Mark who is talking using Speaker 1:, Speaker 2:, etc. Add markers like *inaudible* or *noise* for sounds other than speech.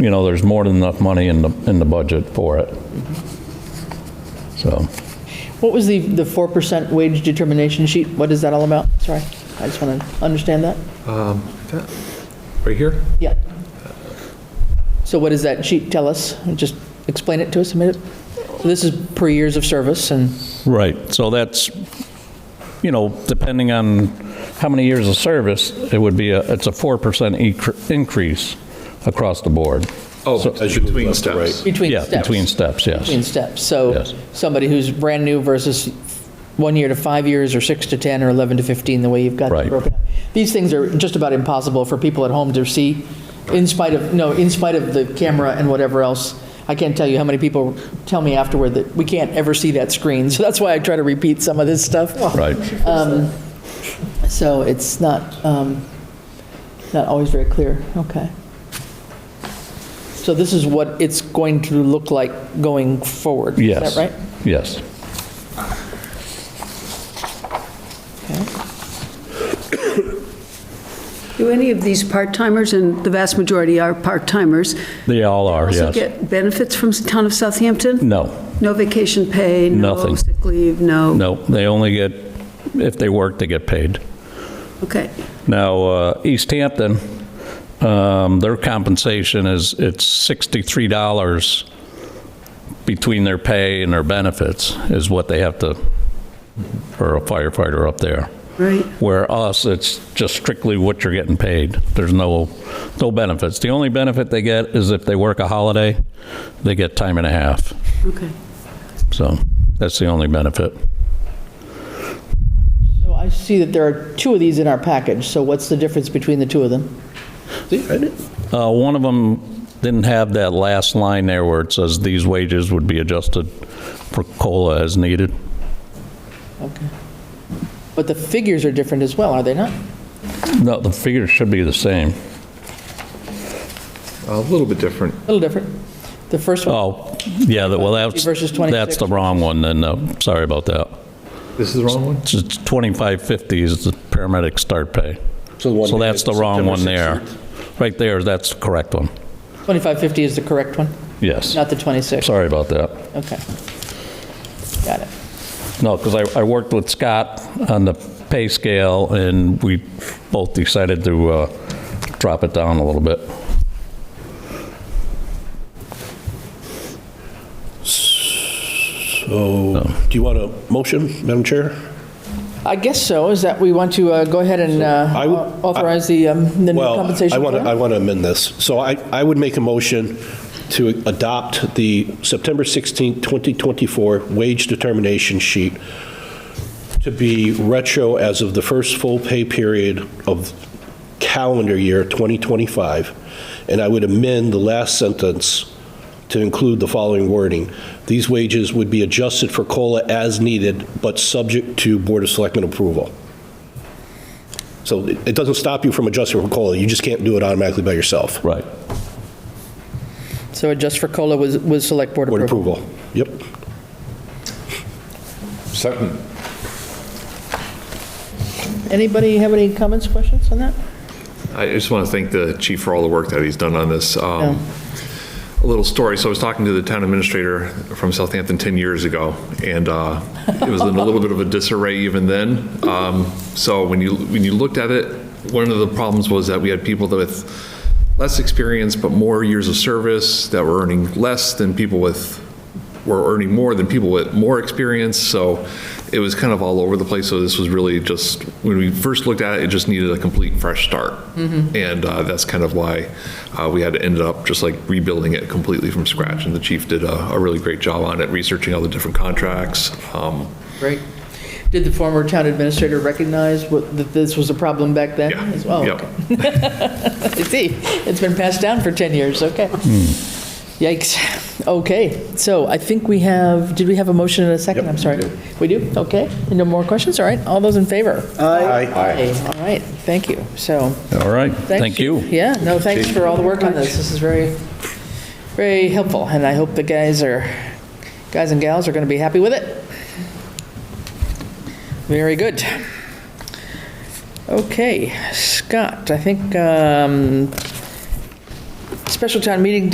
Speaker 1: you know, there's more than enough money in the, in the budget for it. So,
Speaker 2: What was the, the 4% wage determination sheet? What is that all about? Sorry, I just want to understand that.
Speaker 3: Right here?
Speaker 2: Yeah. So what does that sheet tell us? Just explain it to us a minute. So This is per years of service and,
Speaker 1: right, so that's, you know, depending on how many years of service, it would be, a it's a 4% incre- increase across the board.
Speaker 3: Oh, between
Speaker 4: left to right.
Speaker 3: steps.
Speaker 2: between
Speaker 1: Yeah,
Speaker 2: steps.
Speaker 1: between steps,
Speaker 2: Between
Speaker 1: yes.
Speaker 2: steps.
Speaker 1: Yes.
Speaker 2: So somebody who's brand new versus one year to five years or six to 10 or 11 to 15, the way you've got
Speaker 1: Right.
Speaker 2: it broken. up. These things are just about impossible for people at home to see in spite of, no, in spite of the camera and whatever else. I can't tell you how many people tell me afterward that we can't ever see that screen. *laughs* So that's why I try to repeat some of this stuff.
Speaker 1: Right,
Speaker 2: So it's not, um, not always very clear, okay. So this is what it's going to look like going forward?
Speaker 1: yes.
Speaker 2: Is that right?
Speaker 1: Yes.
Speaker 2: Okay.
Speaker 5: Do any of these part-timers, and the vast majority are part-timers,
Speaker 1: They all are,
Speaker 5: also
Speaker 1: yes.
Speaker 5: get benefits from the town of Southampton?
Speaker 1: No,
Speaker 5: No vacation pay?
Speaker 1: Nothing.
Speaker 5: No sick leave? No?
Speaker 1: no, they only get, if they work, they get paid.
Speaker 5: Okay.
Speaker 1: Now, uh, East Hampton, um, their compensation is, it's $63 between their pay and their benefits is what they have to, for a firefighter up there.
Speaker 5: Right.
Speaker 1: Where us, it's just strictly what you're getting paid. There's no, no benefits. The only benefit they get is if they work a holiday, they get time and a half.
Speaker 5: Okay.
Speaker 1: So that's the only benefit.
Speaker 2: So I see that there are two of these in our package, so what's the difference between the two of them?
Speaker 1: Uh, One of them didn't have that last line there where it says these wages would be adjusted for COLA as needed.
Speaker 2: Okay. But the figures are different as well, are they not?
Speaker 1: No, the figures should be the same.
Speaker 3: A little bit different.
Speaker 2: A little different. The first one,
Speaker 1: Oh, yeah, that- well, that's,
Speaker 2: Versus 26.
Speaker 1: that's the wrong one, then, no, sorry about that.
Speaker 3: This is the wrong one?
Speaker 1: It's 2550 is the paramedic start pay. So that's the wrong one there. Right there, that's the correct one.
Speaker 4: Oh.
Speaker 2: 2550 is the correct one,
Speaker 1: Yes,
Speaker 2: not the 26?
Speaker 1: sorry about that.
Speaker 2: Okay. Got it.
Speaker 1: No, because I, I worked with Scott on the pay scale, and we both decided to uh, drop it down a little bit.
Speaker 4: So, Oh. do you want a motion, Madam Chair?
Speaker 2: I guess so, is that we want to uh, go ahead and
Speaker 4: I would-
Speaker 2: uh, authorize the um, the new
Speaker 4: Well, I
Speaker 2: compensation
Speaker 4: want to, I
Speaker 2: plan?
Speaker 4: want to amend this. So I, I would make a motion to adopt the September 16, 2024 wage determination sheet to be retro as of the first full pay period of calendar year 2025. And I would amend the last sentence to include the following wording. These wages would be adjusted for COLA as needed, but subject to Board of Selectmen approval. So it it doesn't stop you from adjusting for COLA, you just can't do it automatically by yourself.
Speaker 1: Right.
Speaker 2: So adjust for COLA was, was select board
Speaker 4: Board
Speaker 2: approval.
Speaker 4: approval. Yep.
Speaker 3: Second.
Speaker 2: Anybody have any comments, questions on that?
Speaker 3: I just want to thank the chief for all the work that he's done on this. Um, A little story, so I was talking to the town administrator from Southampton 10 years ago, and uh, it was in a little bit of a disarray even then. Um, So when you, when you looked at it, one of the problems was that we had people that with less experience but more years of service that were earning less than people with were earning more than people with more experience, so it was kind of all over the place. So this was really just, when we first looked at it, it just needed a complete fresh start.
Speaker 2: Mm-hmm.
Speaker 3: And uh, that's kind of why uh, we had to end up just like rebuilding it completely from scratch. And the chief did a a really great job on it, researching all the different contracts. Um,
Speaker 2: Great. Did the former town administrator recognize what- that this was a problem back then
Speaker 3: Yeah.
Speaker 2: as well?
Speaker 3: Yep.
Speaker 2: I see. It's been passed down for 10 years, okay. Yikes. Okay, so I think we have, did we have a motion and a second? I'm sorry. We do? Okay. No more questions? All right. All those in favor? Aye. All right, thank you. So,
Speaker 1: All right,
Speaker 2: thanks.
Speaker 1: thank you.
Speaker 2: Yeah, no, thanks for all the work on this. This is very, very helpful, and I hope the guys are, guys and gals are going to be happy with it. Very good. Okay, Scott, I think um, special town meeting